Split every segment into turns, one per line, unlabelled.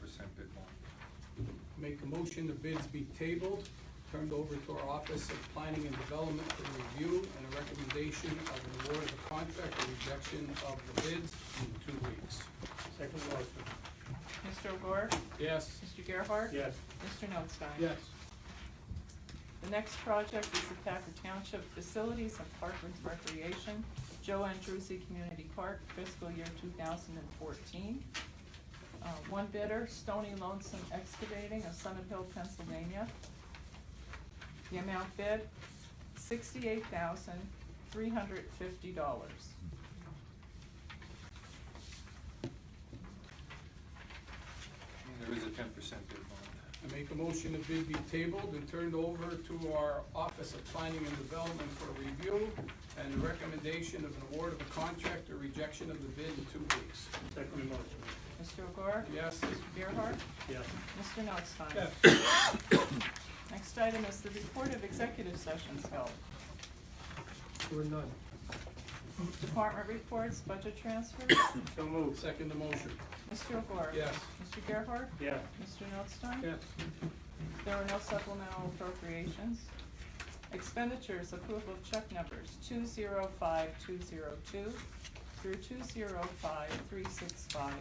percent bid bond.
Make a motion the bids be tabled, turned over to our Office of Planning and Development for review and a recommendation of an award of a contract or rejection of the bids in two weeks.
Second motion.
Mr. O'Gore?
Yes?
Mr. Gerhart?
Yes.
Mr. Notstein?
Yes.
The next project is the Thacker Township Facilities and Parklands Recreation, Joe Andrewsy Community Park, fiscal year two thousand and fourteen. Uh, one bidder, Stony Lonesome Excavating of Summit Hill, Pennsylvania. The amount bid, sixty-eight thousand, three hundred fifty dollars.
And there is a ten percent bid bond.
I make a motion the bid be tabled and turned over to our Office of Planning and Development for review and a recommendation of an award of a contract or rejection of the bid in two weeks.
Second motion.
Mr. O'Gore?
Yes?
Mr. Gerhart?
Yes.
Mr. Notstein? Next item is the report of executive sessions held.
Or none.
Department reports, budget transfers.
So moved.
Second the motion.
Mr. O'Gore?
Yes?
Mr. Gerhart?
Yes.
Mr. Notstein? There are no supplemental appropriations. Expenditures, approval of check numbers two zero five two zero two through two zero five three six five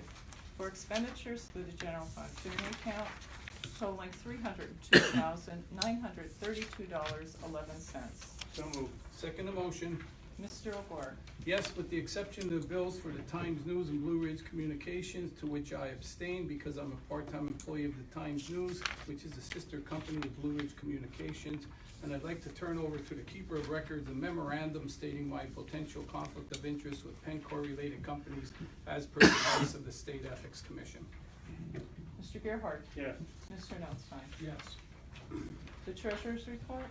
for expenditures through the general fund tuition account totaling three hundred and two thousand nine hundred thirty-two dollars eleven cents.
So moved.
Second the motion.
Mr. O'Gore?
Yes, with the exception of the bills for the Times News and Blue Ridge Communications, to which I abstain because I'm a part-time employee of the Times News, which is a sister company of Blue Ridge Communications. And I'd like to turn over to the keeper of records a memorandum stating my potential conflict of interest with Pencor-related companies as per the advice of the State Ethics Commission.
Mr. Gerhart?
Yes.
Mr. Notstein?
Yes.
The treasurer's report?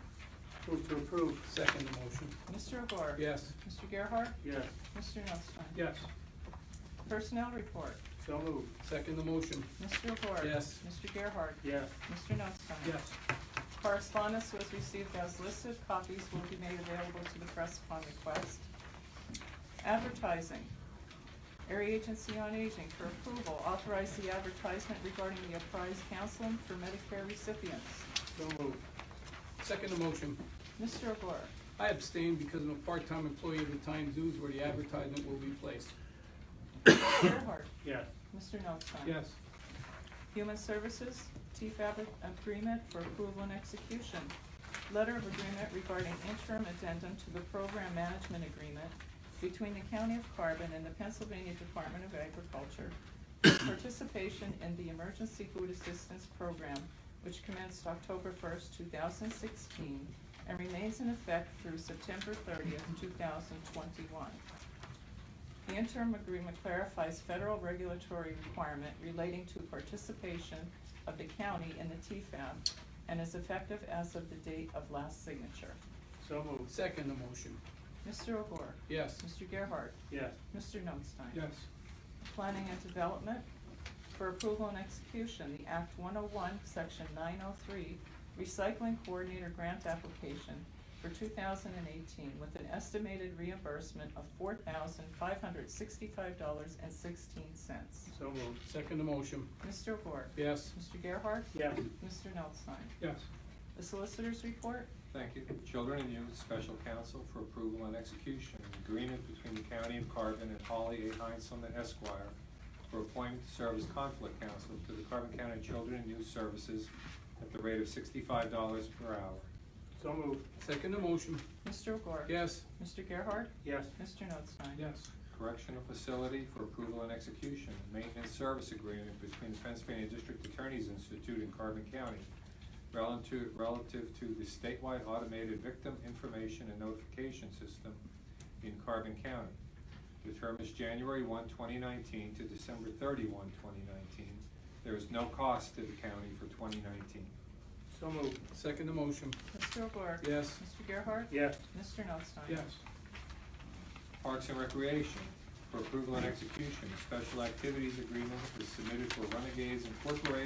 Move to approve.
Second the motion.
Mr. O'Gore?
Yes.
Mr. Gerhart?
Yes.
Mr. Notstein?
Yes.
Personnel report?
So moved.
Second the motion.
Mr. O'Gore?
Yes.
Mr. Gerhart?
Yes.
Mr. Notstein? Correspondence was received as listed, copies will be made available to the press upon request. Advertising. Area Agency on Aging for approval, authorize the advertisement regarding the apprised counseling for Medicare recipients.
So moved.
Second the motion.
Mr. O'Gore?
I abstain because I'm a part-time employee of the Times News where the advertisement will be placed.
Gerhart?
Yes.
Mr. Notstein? Human Services, TFAB agreement for approval and execution. Letter of agreement regarding interim addendum to the program management agreement between the County of Carbon and the Pennsylvania Department of Agriculture for participation in the Emergency Food Assistance Program, which commenced October first, two thousand sixteen, and remains in effect through September thirtieth, two thousand twenty-one. The interim agreement clarifies federal regulatory requirement relating to participation of the county in the TFAB and is effective as of the date of last signature.
So moved.
Second the motion.
Mr. O'Gore?
Yes.
Mr. Gerhart?
Yes.
Mr. Notstein? Planning and Development for approval and execution, the Act one oh one, section nine oh three, recycling coordinator grant application for two thousand and eighteen with an estimated reimbursement of four thousand five hundred sixty-five dollars and sixteen cents.
So moved.
Second the motion.
Mr. O'Gore?
Yes.
Mr. Gerhart?
Yes.
Mr. Notstein?
Yes.
The solicitors report?
Thank you. Children and Youth Special Counsel for approval and execution, an agreement between the County of Carbon and Holly A. Heinzelman Esquire for appointment to serve as conflict counsel to the Carbon County Children and Youth Services at the rate of sixty-five dollars per hour.
So moved.
Second the motion.
Mr. O'Gore?
Yes.
Mr. Gerhart?
Yes.
Mr. Notstein?
Yes.
Correctional Facility for approval and execution, maintenance service agreement between the Pennsylvania District Attorney's Institute in Carbon County relative, relative to the statewide automated victim information and notification system in Carbon County. The term is January 1, 2019, to December 31, 2019. There is no cost to the county for twenty nineteen.
So moved.
Second the motion.
Mr. O'Gore?
Yes.
Mr. Gerhart?
Yes.
Mr. Notstein?
Parks and Recreation, for approval and execution, special activities agreement is submitted for Renegades Incorporated